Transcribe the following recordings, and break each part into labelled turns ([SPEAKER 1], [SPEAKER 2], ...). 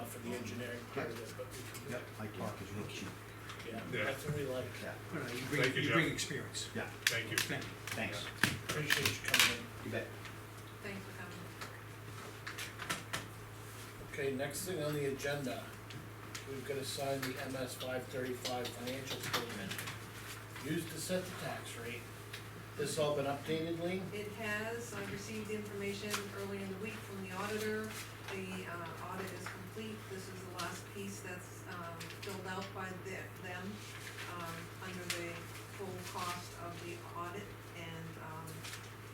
[SPEAKER 1] engineering part of it, but we,
[SPEAKER 2] Yep, my talk is real cheap,
[SPEAKER 1] yeah,
[SPEAKER 3] Yeah.
[SPEAKER 1] that's what we like.
[SPEAKER 2] yeah,
[SPEAKER 4] All right, you
[SPEAKER 3] Thank you,
[SPEAKER 4] bring, you bring
[SPEAKER 3] Jeff.
[SPEAKER 4] experience.
[SPEAKER 2] yeah,
[SPEAKER 3] Thank you.
[SPEAKER 4] Thank you.
[SPEAKER 2] thanks,
[SPEAKER 1] Appreciate you coming
[SPEAKER 2] you bet.
[SPEAKER 5] Thanks for coming.
[SPEAKER 1] in. Okay, next thing on the agenda, we've gotta sign the MS five thirty-five financial statement. Used to set the tax rate. This all been updated, Lean?
[SPEAKER 5] It has, I received information early in the week from the auditor. The uh, audit is complete, this is the last piece that's um, filled out by the- them um, under the full cost of the audit. And um,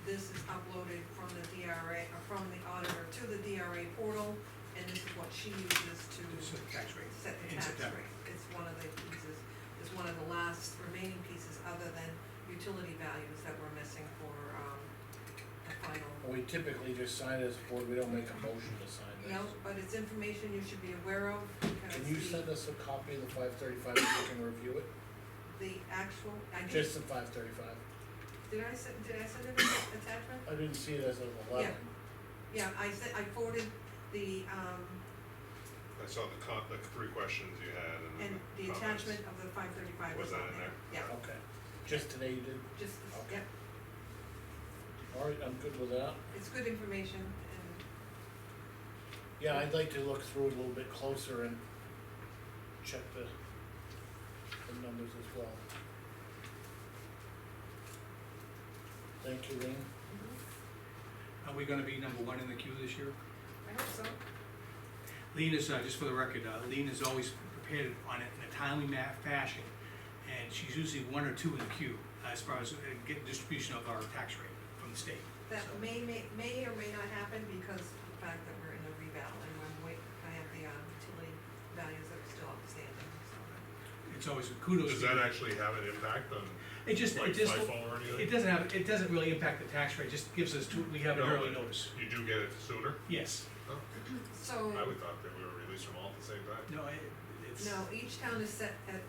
[SPEAKER 5] this is uploaded from the DRA, or uh, from the auditor to the DRA portal, and this is what she uses to
[SPEAKER 4] So tax rate.
[SPEAKER 5] set
[SPEAKER 4] in
[SPEAKER 5] the tax
[SPEAKER 4] September.
[SPEAKER 5] rate. It's one of the pieces, it's one of the last remaining pieces other than utility values that we're missing for, um, the final.
[SPEAKER 1] We typically just sign as a board, we don't make a motion to sign this.
[SPEAKER 5] No, but it's information you should be aware of because
[SPEAKER 1] Can you
[SPEAKER 5] the,
[SPEAKER 1] send us a copy of the five thirty-five, so we can review it?
[SPEAKER 5] the actual, I did,
[SPEAKER 1] Just the five thirty-five?
[SPEAKER 5] did I send, did I send it as an attachment?
[SPEAKER 1] I didn't see it as an eleven.
[SPEAKER 5] Yeah, I sent, I forwarded the, um,
[SPEAKER 3] I saw the con, the three questions you had and then
[SPEAKER 5] and the
[SPEAKER 3] comments.
[SPEAKER 5] attachment of the five thirty-five
[SPEAKER 3] Was
[SPEAKER 5] was
[SPEAKER 3] that
[SPEAKER 5] on
[SPEAKER 3] in
[SPEAKER 5] there, yeah,
[SPEAKER 3] there?
[SPEAKER 1] Okay, just today you did?
[SPEAKER 5] just, the-
[SPEAKER 1] Okay.
[SPEAKER 5] yeah,
[SPEAKER 1] All right, I'm good with that.
[SPEAKER 5] it's good information and
[SPEAKER 1] Yeah, I'd like to look through it a little bit closer and check the, the numbers as well. Thank you, Lean.
[SPEAKER 5] mm-hmm,
[SPEAKER 4] Are we gonna be number one in the queue this year?
[SPEAKER 5] I hope so.
[SPEAKER 4] Lean is, uh, just for the record, uh, Lean is always prepared on it in a timely ma- fashion, and she's usually one or two in the queue as far as uh, getting distribution of our tax rate from the state.
[SPEAKER 5] That
[SPEAKER 4] So,
[SPEAKER 5] may, may, may or may not happen because of the fact that we're in a revale and we're wait, I have the, um, utility values that are still outstanding, so.
[SPEAKER 4] It's always kudos.
[SPEAKER 3] Does
[SPEAKER 4] to
[SPEAKER 3] that
[SPEAKER 4] you.
[SPEAKER 3] actually have an impact on
[SPEAKER 4] It just,
[SPEAKER 3] like
[SPEAKER 4] it just,
[SPEAKER 3] FIFO or anything?
[SPEAKER 4] it doesn't have, it doesn't really impact the tax rate, just gives us, two- we have an
[SPEAKER 3] No,
[SPEAKER 4] early
[SPEAKER 3] but
[SPEAKER 4] notice.
[SPEAKER 3] You do get it sooner?
[SPEAKER 4] Yes,
[SPEAKER 3] Oh,
[SPEAKER 5] So,
[SPEAKER 3] I would thought that we were released from all at the same time.
[SPEAKER 4] no, it- it's,
[SPEAKER 5] no, each town is set at,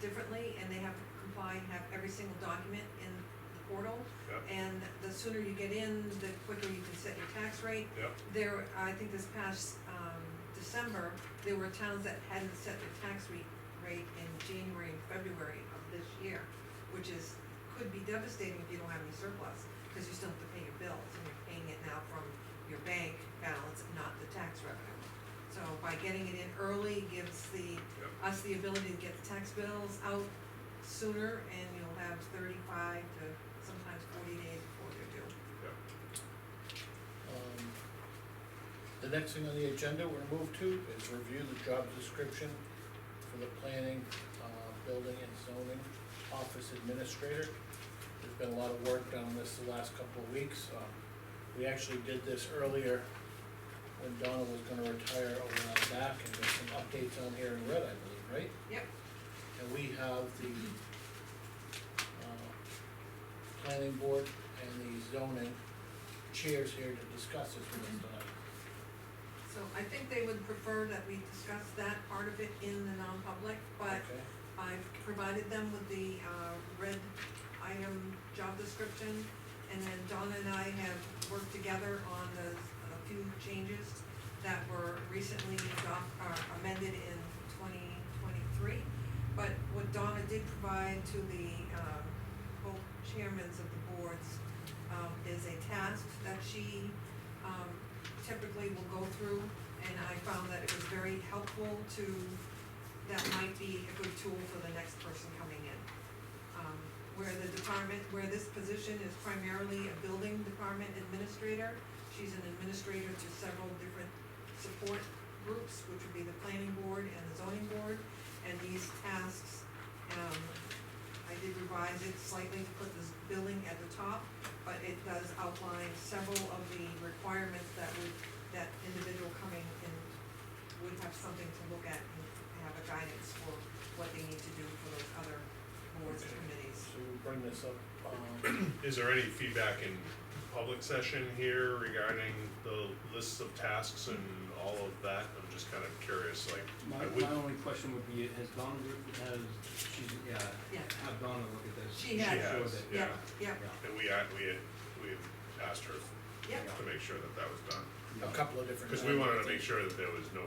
[SPEAKER 5] differently and they have to comply and have every single document in the portal.
[SPEAKER 3] Yep,
[SPEAKER 5] And the sooner you get in, the quicker you can set your tax rate.
[SPEAKER 3] yep,
[SPEAKER 5] There, I think this past, um, December, there were towns that hadn't set their tax rate, rate in January and February of this year, which is, could be devastating if you don't have any surplus, cause you still have to pay your bills, and you're paying it now from your bank balance, not the tax revenue. So by getting it in early gives the,
[SPEAKER 3] yep.
[SPEAKER 5] us the ability to get the tax bills out sooner, and you'll have thirty-five to sometimes forty days before they're due.
[SPEAKER 1] Um, The next thing on the agenda we're gonna move to is review the job description for the planning, uh, building and zoning office administrator. There's been a lot of work done on this the last couple of weeks, um, we actually did this earlier when Donna was gonna retire a while back, and there's some updates on here in red, I believe, right?
[SPEAKER 5] Yep.
[SPEAKER 1] And we have the, uh, planning board and the zoning chairs here to discuss this with us tonight.
[SPEAKER 5] So I think they would prefer that we discuss that part of it in the non-public, but
[SPEAKER 1] Okay,
[SPEAKER 5] I've provided them with the, uh, red item job description. And then Donna and I have worked together on the, a few changes that were recently adopt, uh, amended in twenty twenty-three. But what Donna did provide to the, um, both chairmans of the boards, um, is a task that she, um, typically will go through. And I found that it was very helpful to that might be a good tool for the next person coming in. Um, where the department, where this position is primarily a building department administrator, she's an administrator to several different support groups, which would be the planning board and the zoning board. And these tasks, um, I did revise it slightly to put this building at the top, but it does outline several of the requirements that would, that individual coming in would have something to look at and have a guidance for what they need to do for those other boards and committees.
[SPEAKER 1] so we'll bring this up, um,
[SPEAKER 3] Is there any feedback in public session here regarding the lists of tasks and all of that? I'm just kind of curious, like,
[SPEAKER 6] My,
[SPEAKER 3] I would,
[SPEAKER 6] my only question would be, has Donna, looked- has, she's, yeah,
[SPEAKER 5] Yeah.
[SPEAKER 6] have Donna look at this?
[SPEAKER 5] She
[SPEAKER 3] she
[SPEAKER 5] has.
[SPEAKER 6] Sure
[SPEAKER 3] has,
[SPEAKER 6] that-
[SPEAKER 3] yeah.
[SPEAKER 5] Yeah,
[SPEAKER 3] And we, had- we had, we had asked her
[SPEAKER 5] yeah.
[SPEAKER 3] to make sure that that was done,
[SPEAKER 1] a
[SPEAKER 6] yeah.
[SPEAKER 1] couple of different.
[SPEAKER 3] because we wanted to make sure that there was no